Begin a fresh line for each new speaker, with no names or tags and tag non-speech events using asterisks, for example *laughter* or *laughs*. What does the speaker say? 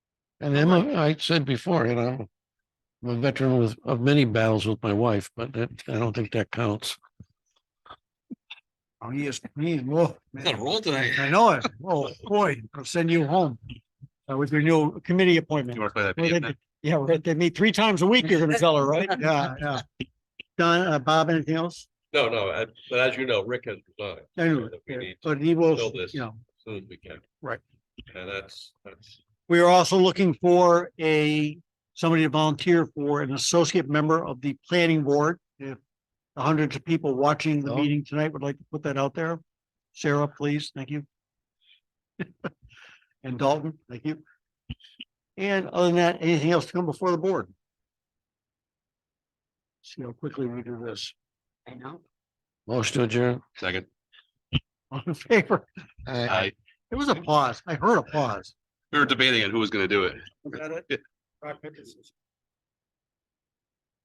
And Emma, I said before, you know, I'm a veteran with, of many battles with my wife, but that, I don't think that counts.
Oh, he is, he is, whoa.
Got a roll tonight.
I know it. Oh, boy, I'll send you home. Uh, with your new committee appointment.
You want to play that
Well,
video?
they-
now?
Yeah, we're- they meet three times a week, you're gonna tell her,
*laughs*
right? Yeah, yeah. Don, uh, Bob, anything else?
No, no, I- but as you know, Rick has resigned. so
Anyway,
that we
yeah,
need to
but he will,
fill this.
you know,
as Soon as we can.
Right.
And that's, that's,
we are also looking for a, somebody to volunteer for an associate member of the planning board. If the hundreds of people watching the
Oh.
meeting tonight would like to put that out there. Sarah, please, thank you. *laughs* And Dalton, thank you. And other than that, anything else to come before the board? See how quickly we do this.
I
*laughs*
know.
Motion to adjourn.
Second.
All in favor?
I,
I,
There was a pause. I heard a pause.
we were debating on who was gonna do it.